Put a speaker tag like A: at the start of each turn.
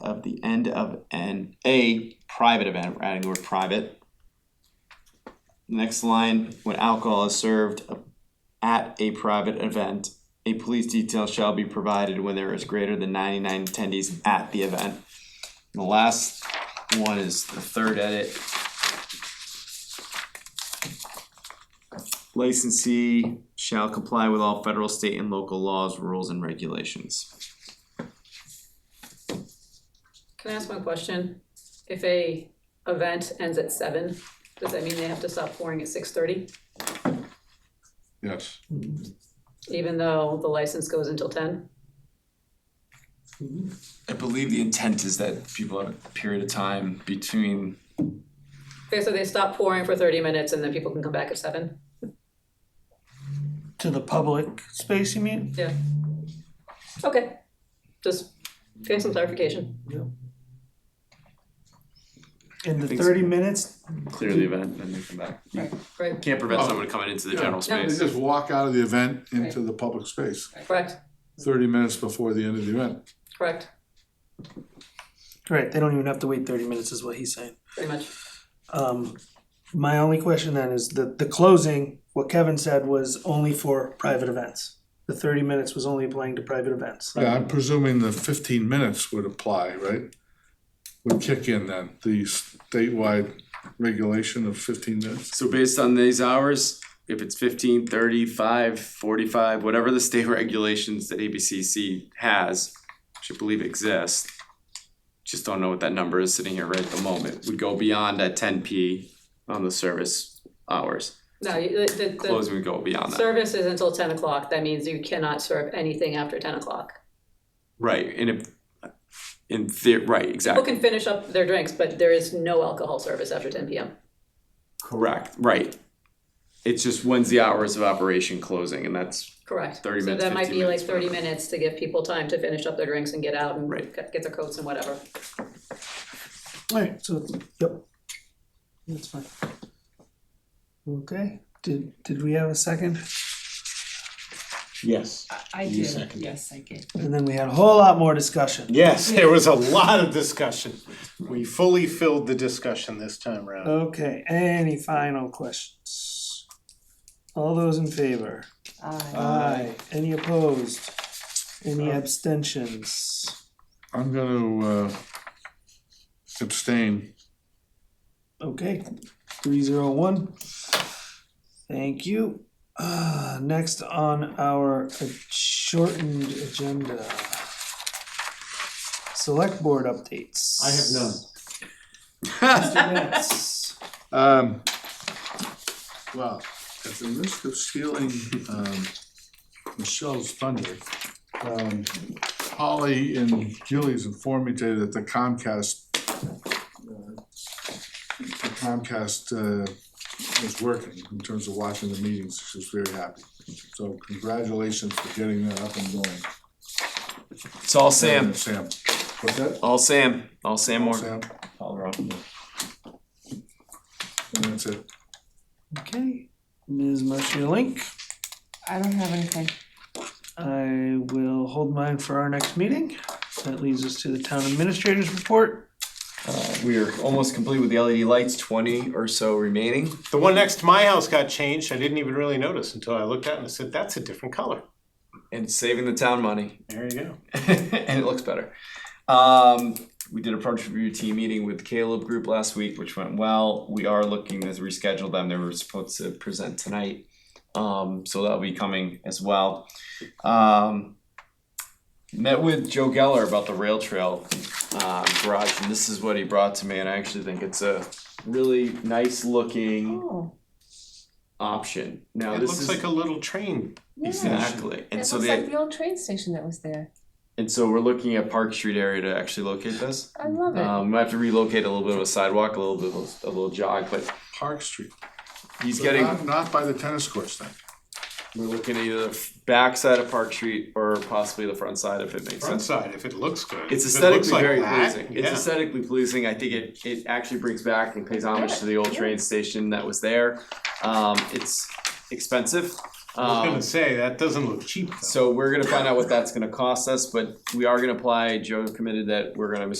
A: of the end of an, a private event, we're adding the word private. Next line, when alcohol is served at a private event, a police detail shall be provided when there is greater than ninety-nine attendees at the event. And The last one is the third edit. Licensee shall comply with all federal, state, and local laws, rules, and regulations.
B: Can I ask one question? If a event ends at seven, does that mean they have to stop pouring at six thirty,
C: Yes,
B: even though the license goes until ten?
A: I believe the intent is that people have a period of time between,
B: Okay, so they stop pouring for thirty minutes and then people can come back at seven?
D: To the public space, you mean?
B: Yeah. Okay, just getting some clarification.
D: In the
A: think so.
D: thirty minutes?
E: clear the event and then come back. You
B: Right,
E: can't prevent someone coming into the
C: Yeah.
E: general
B: No.
C: they
E: space.
C: just walk out of the event into the public space,
B: correct,
C: thirty minutes before the end of the event.
B: correct,
D: Right, they don't even have to wait thirty minutes is what he's saying.
B: pretty much.
D: Um, my only question then is that the closing, what Kevin said was only for private events. The thirty minutes was only applying to private events.
C: Yeah, I'm presuming the fifteen minutes would apply, right? Would kick in then, the statewide regulation of fifteen minutes.
E: So based on these hours, if it's 15, 30, 5, 45, whatever the state regulations that ABCC has, which I believe exist, just don't know what that number is sitting here right at the moment, would go beyond that 10P on the service hours.
B: No, you- the, the, the
E: Closing would go beyond that.
B: service is until ten o'clock, that means you cannot serve anything after ten o'clock.
E: Right, and if, in theory, right,
B: People
E: exactly.
B: can finish up their drinks, but there is no alcohol service after ten PM.
E: Correct, right. It's just when's the hours of operation closing, and that's
B: Correct.
E: 30 minutes,
B: So that might
E: 15
B: be like
E: minutes,
B: thirty minutes to give people time to finish up their drinks and get out and
E: Right.
B: get get their coats and whatever.
D: Right, so, yep. That's fine. Okay, did, did we have a second?
F: Yes.
G: I
F: You
G: do,
F: second it.
G: yes, I did.
D: And then we had a whole lot more discussion.
F: Yes, there was a lot of discussion. We fully filled the discussion this time around.
D: Okay, any final questions? All those in favor?
G: Uh,
D: Aye. Any opposed? Any abstentions?
C: I'm gonna uh, abstain.
D: Okay, three zero one. Thank you. Uh, next on our shortened agenda. Select board updates.
F: I have none.
D: Mr. Nance.
C: Um, well, at the risk of stealing, um, Michelle's thunder, um, Holly and Julie's informed me today that the Comcast, uh, the Comcast, uh, is working in terms of watching the meetings. She's very happy. So congratulations for getting that up and going.
A: it's all Sam,
C: Sam. What's that?
A: all Sam, all Sam Moore.
C: Sam. And that's it.
D: Okay, Ms. Marcia Link,
G: I don't have anything.
D: I will hold mine for our next meeting. That leads us to the town administrator's report.
A: We are almost complete with the LED lights, twenty or so remaining.
F: The one next to my house got changed. I didn't even really notice until I looked at it and I said, that's a different color.
A: and saving the town money,
F: There you go.
A: and it looks better. Um, we did a project review team meeting with Caleb Group last week, which went well. We are looking to reschedule them. They were supposed to present tonight, um, so that'll be coming as well. Um, met with Joe Geller about the rail trail uh, garage, and this is what he brought to me. And I actually think it's a really nice looking
G: Oh,
A: option. Now
F: It
A: this
F: looks
A: is
F: like a little train.
G: yeah.
A: exactly, and
G: It
A: so
G: looks
A: the
G: like the old train station that was there.
A: And so we're looking at Park Street area to actually locate this.
G: I love it.
A: Um, we might have to relocate a little bit of a sidewalk, a little bit of a, a little jog, but
C: Park Street.
A: he's
C: So
A: getting.
C: Not, not by the tennis courts then.
A: We're looking at either the back side of Park Street or possibly the front side if it makes
F: Front
A: sense.
F: side, if it looks good.
A: It's
F: If it looks
A: aesthetically
F: like
A: very
F: that,
A: pleasing.
F: yeah.
A: It's aesthetically pleasing. I think it, it actually brings back and pays homage to the old
G: Yeah.
A: train station that was there. Um, it's expensive.
F: I was
A: Um,
F: gonna say, that doesn't look cheap though.
A: so we're gonna find out what that's gonna cost us, but we are gonna apply. Joe committed that we're gonna